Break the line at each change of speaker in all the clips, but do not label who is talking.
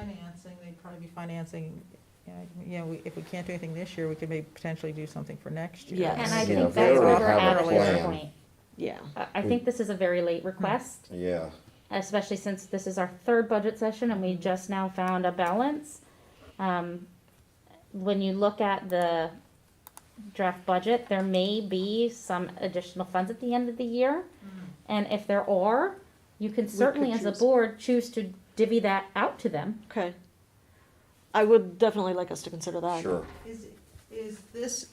Financing, they'd probably be financing, uh, you know, we- if we can't do anything this year, we could maybe potentially do something for next year.
Yes.
And I
Yeah,
think
if
that's
they
where
already
we're
have
at
a
at this
plan.
point.
Yeah.
I, I think this is a very late request,
Yeah,
especially since this is our third budget session and we just now found a balance. Um, when you look at the draft budget, there may be some additional funds at the end of the year.
Mm-hmm.
And if there are, you can certainly, as a
choose.
board, choose to divvy that out to them.
Okay. I would definitely like us to consider that.
sure.
Is, is this,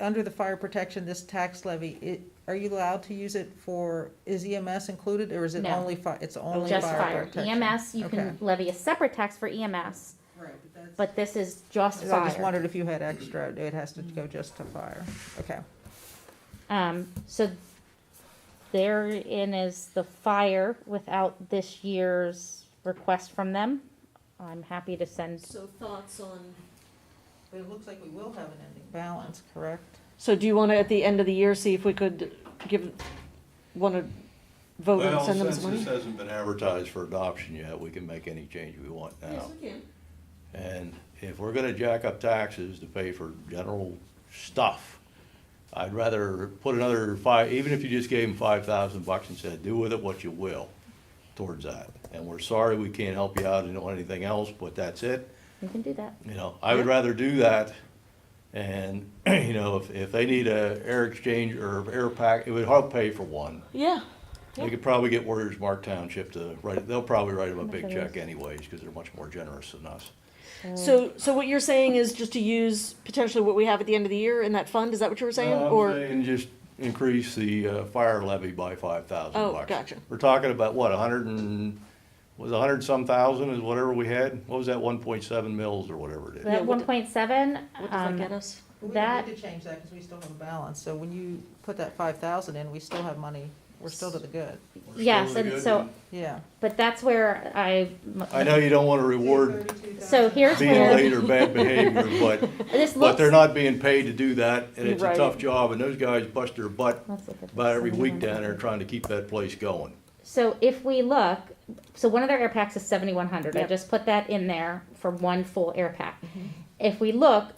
under the fire protection, this tax levy, it, are you allowed to use it for, is EMS included, or is it
No.
only fi, it's only
Just fire. E
fire protection?
EMS, you
Okay.
can levy a separate tax for EMS,
Right, but
but this is just
So I just
fire.
wondered if you had extra, it has to go just to fire, okay.
Um, so therein is the fire without this year's request from them. I'm happy to send,
So thoughts on,
But it looks like we will have an ending balance, correct?
So do you want to, at the end of the year, see if we could give, want to vote and
Well,
send them
since
some money?
this hasn't been advertised for adoption yet, we can make any change we want
yes,
now.
we can.
And if we're gonna jack up taxes to pay for general stuff, I'd rather put another five, even if you just gave them five thousand bucks and said, do with it what you will towards that. And we're sorry we can't help you out and on anything else, but that's it.
you can do that.
You know, I would rather do that. And, you know, if, if they need a air exchange or air pack, it would help pay for one.
Yeah,
They could probably get Warriors Mark Township to write, they'll probably write them a
much
big
it
check
is?
anyways, because they're much more generous than us.
so, so what you're saying is just to use potentially what we have at the end of the year in that fund, is that what you were saying?
No, I'm
Or,
saying just increase the uh, fire levy by five thousand
Oh,
bucks.
gotcha.
We're talking about what, a hundred and, was a hundred some thousand is whatever we had? What was that, one point seven mils or whatever it is?
Yeah,
That
what
one
did-
point seven,
what does that get
um,
us?
We
That-
don't need to change that, because we still have a balance, so when you put that five thousand in, we still have money, we're still to the good,
We're still
yes,
really
and
good.
so,
yeah.
but that's where I.
I know you don't wanna reward
So here's
being
where,
late or bad behavior, but,
this
but
looks.
they're not being paid to do that, and it's a
Right.
tough job, and those guys bust their butt
Let's look at
about
this.
every week down there trying to keep that place going.
So if we look, so one of their air packs is seventy-one hundred, I
Yep.
just put that in there for one full air pack. If we look,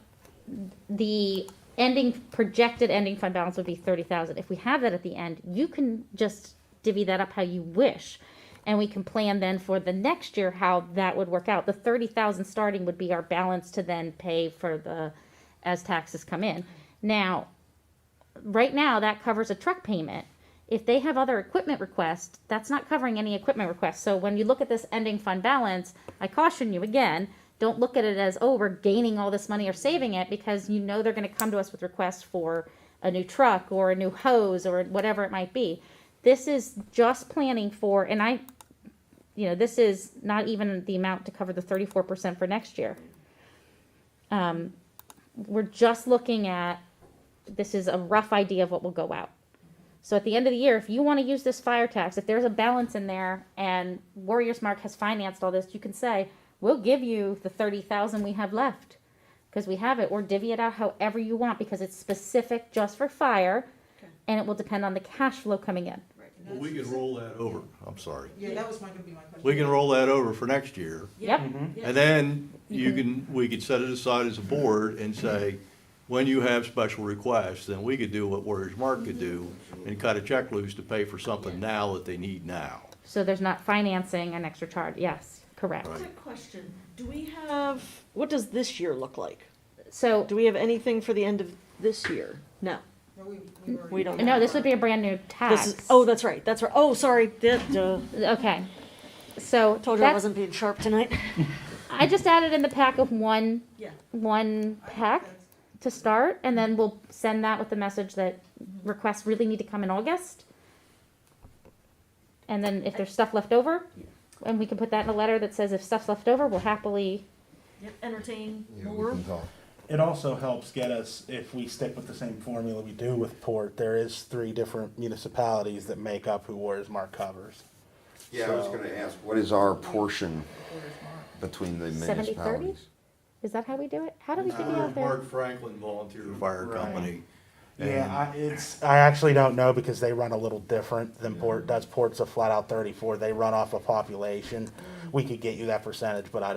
the ending, projected ending fund balance would be thirty thousand, if we have that at the end, you can just divvy that up how you wish. And we can plan then for the next year how that would work out, the thirty thousand starting would be our balance to then pay for the, as taxes come in. Now, right now that covers a truck payment. If they have other equipment requests, that's not covering any equipment requests. So when you look at this ending fund balance, I caution you again, don't look at it as, oh, we're gaining all this money or saving it because you know they're gonna come to us with requests for a new truck or a new hose or whatever it might be. This is just planning for, and I, you know, this is not even the amount to cover the thirty-four percent for next year. Um, we're just looking at this is a rough idea of what will go out. So at the end of the year, if you want to use this fire tax, if there's a balance in there and Warriors Mark has financed all this, you can say, we'll give you the thirty thousand we have left. Because we have it, or divvy it out however you want, because it's specific just for fire. And it will depend on the cash flow coming in.
Well, we can roll that over, I'm sorry.
Yeah, that was my, gonna be my question.
We can roll that over for next year.
Yep,
And then you can, we could set it aside as a board and say, when you have special requests, then we could do what Warriors Mark could do and cut a check loose to pay for something now that they need now.
so there's not financing an extra charge, yes, correct.
Right.
Quick question, do we
We have, what does this year look like?
So,
Do we have anything for the end of this year? No.
No, we- we already-
We don't
no, this would be a brand new
This is,
tax.
oh, that's right, that's right. Oh, sorry, duh, duh.
Okay, so.
Told you I
that's-
wasn't being sharp tonight.
I just added in the pack of one,
Yeah.
one
I think
pack
that's-
to start, and then we'll send that with the message that requests really need to come in August. And then if there's stuff left over, and we can put that in a letter that says if stuff's left over, we'll happily,
Entertain
Yeah, we
more.
can talk.
It also helps get us, if we stick with the same formula we do with Port, there is three different municipalities that make up who Warriors Mark covers.
Yeah, I was gonna ask, what is our portion between the
70-30?
municipalities?
is that how we do it? How do we figure out
Warriors
there?
Mark Franklin Volunteer Fire
Right.
Company.
Yeah, I, it's, I actually don't know because they run a little different than Port does. Port's a flat out thirty-four, they run off a population. we could get you that percentage, but I